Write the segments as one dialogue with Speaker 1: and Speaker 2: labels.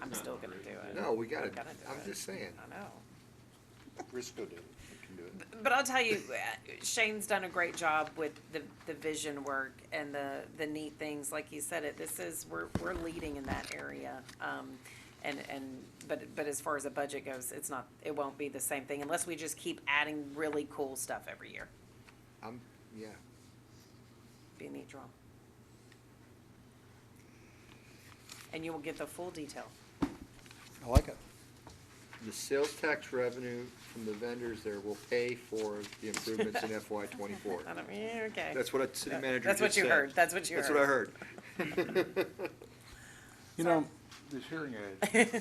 Speaker 1: I'm still gonna do it.
Speaker 2: No, we gotta,
Speaker 1: I'm gonna do
Speaker 2: I'm
Speaker 1: it.
Speaker 2: just saying.
Speaker 1: I know.
Speaker 3: Risco did it, we can do it.
Speaker 1: But I'll tell you, uh, Shane's done a great job with the, the vision work and the, the neat things, like you said it, this is, we're, we're leading in that area. Um, and, and, but, but as far as the budget goes, it's not, it won't be the same thing unless we just keep adding really cool stuff every year.
Speaker 2: I'm, yeah.
Speaker 1: Be a neat draw. And you will get the full detail.
Speaker 4: I like it.
Speaker 2: The sales tax revenue from the vendors there will pay for the improvements in FY twenty-four.
Speaker 1: I don't, yeah, okay.
Speaker 2: That's what a city
Speaker 1: That-
Speaker 2: manager
Speaker 1: that's what
Speaker 2: just
Speaker 1: you
Speaker 2: said.
Speaker 1: heard. That's what you
Speaker 2: That's what I heard.
Speaker 4: You know, this hearing aid,
Speaker 5: So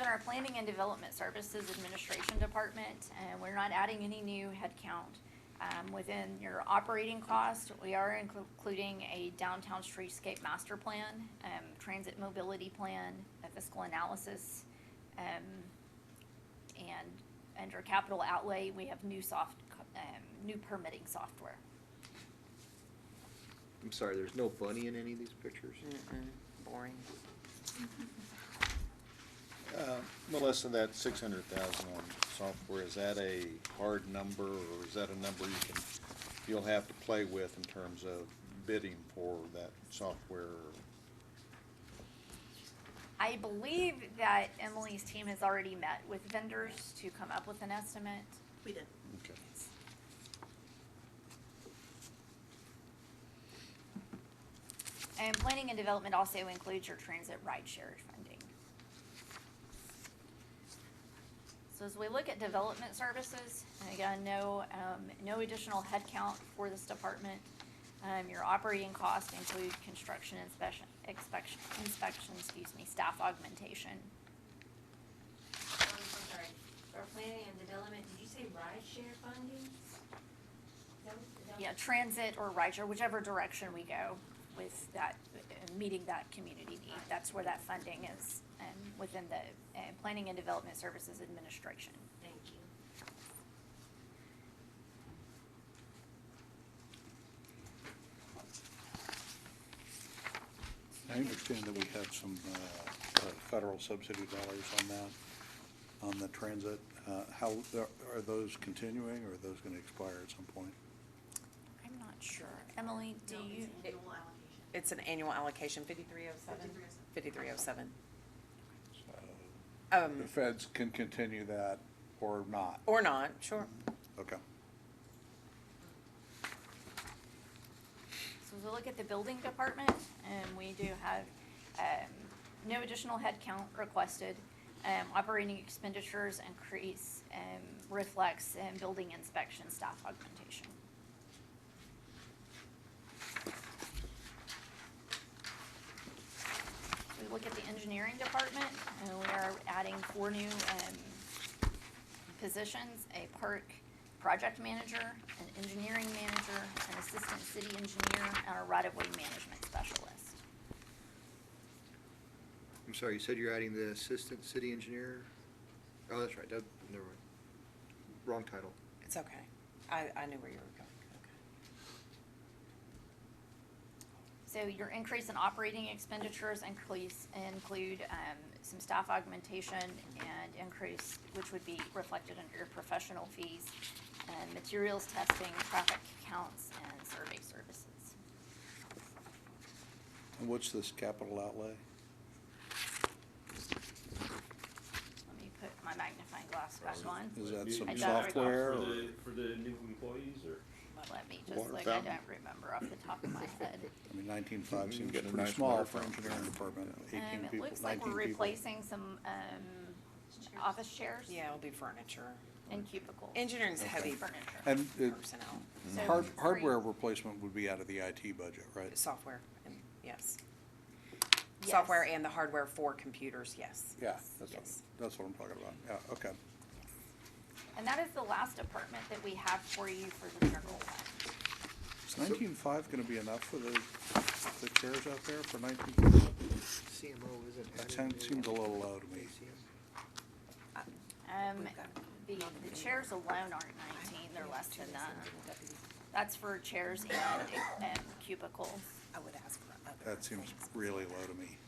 Speaker 5: in our Planning and Development Services Administration Department, uh, we're not adding any new headcount. Um, within your operating cost, we are inclu- including a downtown streetscape master plan, um, transit mobility plan, a fiscal analysis. Um, and under capital outlay, we have new soft, um, new permitting software.
Speaker 2: I'm sorry, there's no bunny in any of these pictures?
Speaker 1: Boring.
Speaker 3: Uh, Melissa, that six hundred thousand on software, is that a hard number, or is that a number you can, you'll have to play with in terms of bidding for that software?
Speaker 5: I believe that Emily's team has already met with vendors to come up with an estimate.
Speaker 6: We did.
Speaker 3: Okay.
Speaker 5: And planning and development also includes your transit rideshare funding. So as we look at development services, and again, no, um, no additional headcount for this department. Um, your operating costs include construction inspection, inspection, inspection, excuse me, staff augmentation.
Speaker 7: Um, I'm sorry, for planning and development, did you say rideshare funding? Is that what- is that what-
Speaker 5: Yeah, transit or rideshare, whichever direction we go with that, uh, meeting that community need, that's where that funding is, um, within the, uh, Planning and Development Services Administration.
Speaker 7: Thank you.
Speaker 4: I understand that we have some uh, uh, federal subsidy dollars on that, on the transit. Uh, How, are those continuing, or are those going to expire at some point?
Speaker 5: I'm not sure. Emily, do
Speaker 6: No, it's
Speaker 5: you,
Speaker 6: Annual allocation.
Speaker 1: It's an annual allocation, fifty-three oh seven? Fifty-three oh seven. Um,
Speaker 4: The feds can continue that or not?
Speaker 1: or not, sure.
Speaker 4: Okay.
Speaker 5: so as we look at the building department, and we do have, um, no additional headcount requested. Um, operating expenditures increase, um, reflects, and building inspection staff augmentation. We look at the engineering department, and we are adding four new, um, positions, a park project manager, an engineering manager, an assistant city engineer, and a right-of-way management specialist.
Speaker 2: I'm sorry, you said you're adding the assistant city engineer? Oh, that's right, that, never mind. Wrong title.
Speaker 1: It's okay. I, I knew where you were going.
Speaker 5: So your increase in operating expenditures increase, include, um, some staff augmentation and increase, which would be reflected under your professional fees, and materials testing, traffic counts, and survey services.
Speaker 4: And what's this capital outlay?
Speaker 5: Let me put my magnifying glass back on.
Speaker 4: Is that
Speaker 5: I
Speaker 4: some
Speaker 5: don't-
Speaker 4: software?
Speaker 8: For
Speaker 4: or-
Speaker 8: the, for the new employees or?
Speaker 5: Let me just
Speaker 3: Water
Speaker 5: look, I
Speaker 3: fountain.
Speaker 5: don't remember off the top of my head.
Speaker 4: I mean, nineteen-five
Speaker 3: You
Speaker 4: seems
Speaker 3: get a
Speaker 4: pretty
Speaker 3: nice
Speaker 4: small
Speaker 3: water
Speaker 4: for
Speaker 3: fountain.
Speaker 4: engineering department,
Speaker 5: Um,
Speaker 4: eighteen
Speaker 5: it
Speaker 4: people,
Speaker 5: looks like
Speaker 4: nineteen
Speaker 5: we're
Speaker 4: people.
Speaker 5: replacing some, um, office chairs.
Speaker 1: Okay. Yeah, it'll be furniture.
Speaker 5: And cubicles.
Speaker 1: Engineering's heavy
Speaker 5: Furniture.
Speaker 4: And it-
Speaker 1: personnel,
Speaker 5: So
Speaker 4: hard-
Speaker 5: three-
Speaker 4: hardware replacement would be out of the IT budget, right?
Speaker 1: software, and, yes.
Speaker 5: Yes.
Speaker 1: Software and the hardware for computers, yes.
Speaker 4: Yeah, that's what,
Speaker 1: Yes.
Speaker 4: that's what I'm talking about, yeah, okay.
Speaker 5: And that is the last department that we have for you for the general fund.
Speaker 4: Is nineteen-five gonna be enough for the, the chairs out there for nineteen?
Speaker 2: CMO isn't added.
Speaker 4: That sound-
Speaker 2: to-
Speaker 4: seems a little low to me.
Speaker 5: Um,
Speaker 1: We've got-
Speaker 5: the, the chairs alone aren't nineteen, they're less than that. That's for chairs and, um, cubicles.
Speaker 1: I would ask for other
Speaker 4: That seems
Speaker 1: things.
Speaker 4: really low to me.